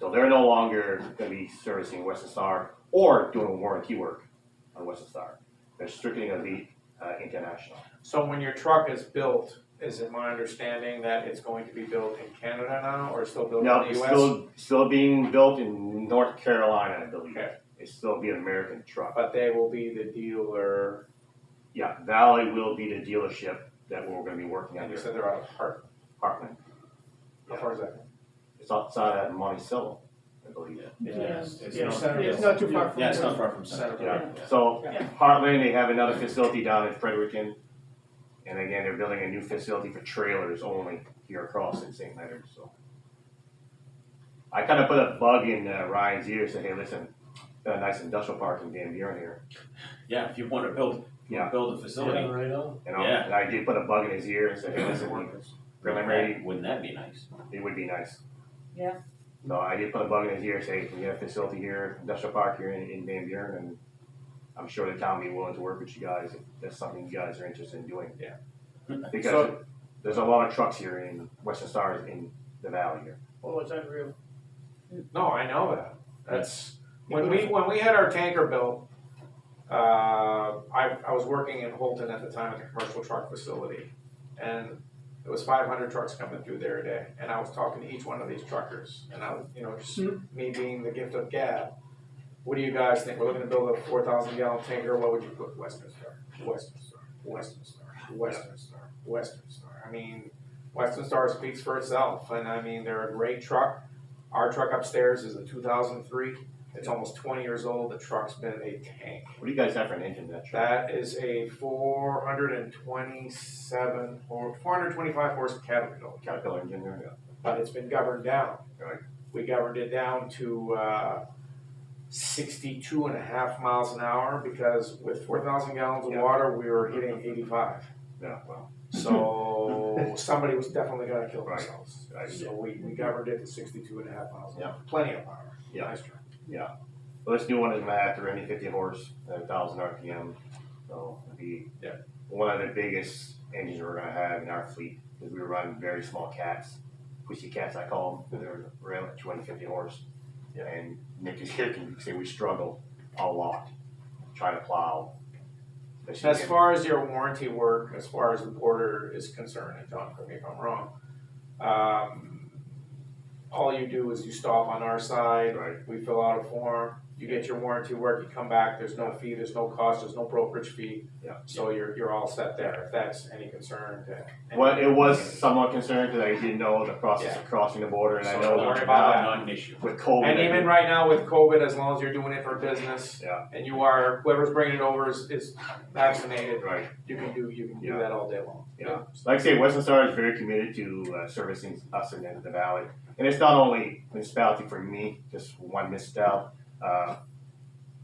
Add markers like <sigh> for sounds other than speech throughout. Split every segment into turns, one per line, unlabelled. they're no longer gonna be servicing Western Star or doing warranty work on Western Star. They're strictly gonna be uh, international.
So when your truck is built, is it my understanding that it's going to be built in Canada now, or still built in
Now,
the
it's
US?
still, still being built in North Carolina, I believe.
Okay.
It's still be an American truck.
But they will be the dealer,
Yeah, Valley will be the dealership that we're gonna be working
and you
under,
said they're out of Hart,
Parkland.
how far is that?
It's outside of Monticello, I believe.
Yes.
It's
Yeah,
not-
center
It's not too far from.
Yeah, it's
here.
not far from center.
Center.
Yeah, so
Yeah.
Heartland, they have another facility down in Fredericton. And again, they're building a new facility for trailers only here across in St. Leonard, so. I kind of put a bug in uh, Ryan's ear, said, hey, listen, got a nice industrial park in Van Buren here.
Yeah, if you want to build, you
Yeah.
wanna build a facility.
right on.
And I,
Yeah.
and I did put a bug in his ear and said, hey, listen, we- preliminary,
Wouldn't that be nice?
it would be nice.
Yeah.
No, I did put a bug in his ear, say, we have a facility here, industrial park here in, in Van Buren, and I'm sure the town will be willing to work with you guys if that's something you guys are interested in doing.
Yeah.
Because
So-
there's a lot of trucks here in Western Stars in the valley here.
Oh, it's unreal.
No, I know that, that's, when we, when we had our tanker built, uh, I, I was working in Holton at the time at the commercial truck facility. And it was five hundred trucks coming through there a day, and I was talking to each one of these truckers, and I, was, you know, just
Hmm.
me being the gift of gab. What do you guys think, we're looking to build a four thousand gallon tanker, what would you put Western Star, Western Star, Western Star, Western Star, Western Star? I mean, Western Star speaks for itself, and I mean, they're a great truck. Our truck upstairs is a two thousand three, it's almost twenty years old, the truck's been a tank.
What do you guys have for an engine in that truck?
That is a four hundred and twenty-seven or four hundred twenty-five horse Caterpillar,
Caterpillar engine there?
but it's been governed down.
Right.
We governed it down to uh, 62 and a half miles an hour because with four thousand gallons of
Yeah.
water, we were hitting eighty-five.
Yeah, well, <laughs>
So somebody was definitely gonna kill
Right.
themselves.
Right.
So we, we governed it to 62 and a half miles an
Yeah.
hour, plenty of power.
Yeah.
Nice truck.
well, this new one is gonna have 350 horse, a thousand RPM, so it'll be
Yeah.
one of the biggest engines we're gonna have in our fleet, because we run very small cats, pussy cats I call them, they're around 250 horse.
Yeah.
And Nick is here, can say we struggle a lot trying to plow. especially
As
in-
far as your warranty work, as far as the border is concerned, and John, correct me if I'm wrong, um, all you do is you stop on our side,
Right,
we fill out a form, you get your warranty work, you come back, there's no fee, there's no cost, there's no brokerage fee.
Yeah.
So you're, you're all set there, if that's any concern to.
Well, it was somewhat concerning because I didn't know the process
Yeah.
of crossing the border, and I
So
know
don't worry
with-
about that.
Not an issue.
with COVID.
And even right now with COVID, as long as you're doing it for business.
Yeah.
And you are, whoever's bringing it over is, is vaccinated,
right,
you can do, you can
Yeah.
do that all day long.
yeah. Like I say, Western Star is very committed to uh, servicing us in the valley, and it's not only municipality for me, just one misspell. Uh,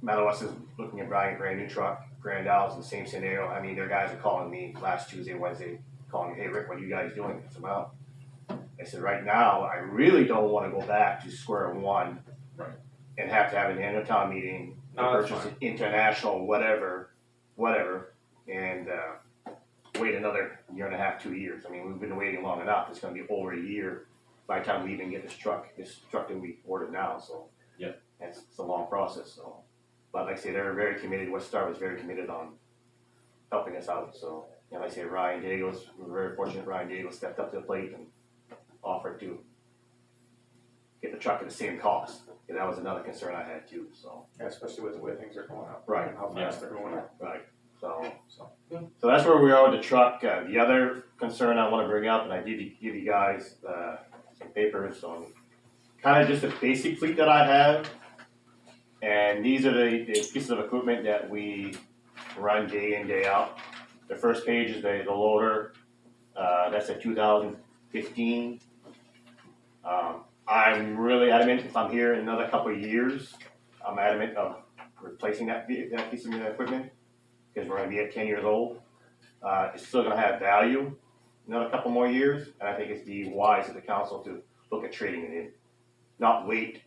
Madawaska is looking at buying a brand new truck. Grand Isle's in the same scenario. I mean, their guys are calling me last Tuesday, Wednesday, calling me, "Hey Rick, what are you guys doing?" I said, "Well," I said, "Right now, I really don't want to go back to square one."
Right.
And have to have an annual town meeting
No, that's
purchase
fine.
it international, whatever, whatever, and uh, wait another year and a half, two years. I mean, we've been waiting long enough. It's going to be over a year by the time we even get this truck, this truck that we ordered now. So
Yep.
that's it's a long process. So, but like I say, they're very committed. West Star was very committed on helping us out. So, and like I say, Ryan Daigle's, we're very fortunate. Ryan Daigle stepped up to the plate and offered to get the truck at the same cost. And that was another concern I had too. So.
Yeah, Especially with the way things are going up.
Right.
How fast they're going up.
Right, so,
So-
so that's where we are with the truck. Uh, the other concern I wanna bring up, and I did give you guys, uh, some papers on kinda just the basic fleet that I have. And these are the, the pieces of equipment that we run day in, day out. The first page is the, the loader, uh, that's a two thousand fifteen. Um, I'm really adamant, if I'm here in another couple of years, I'm adamant of replacing that, ve- that piece of equipment because we're gonna be at ten years old. Uh, it's still gonna have value another couple more years, and I think it's the wise of the council to look at trading it in. Not wait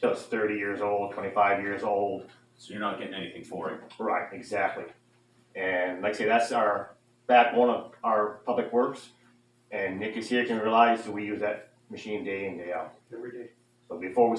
till it's thirty years old, twenty-five years old.
So you're not getting anything for it.
Right, exactly. And like I say, that's our backbone of our public works. And Nick is here can realize that we use that machine day in, day out.
Every day.
So before we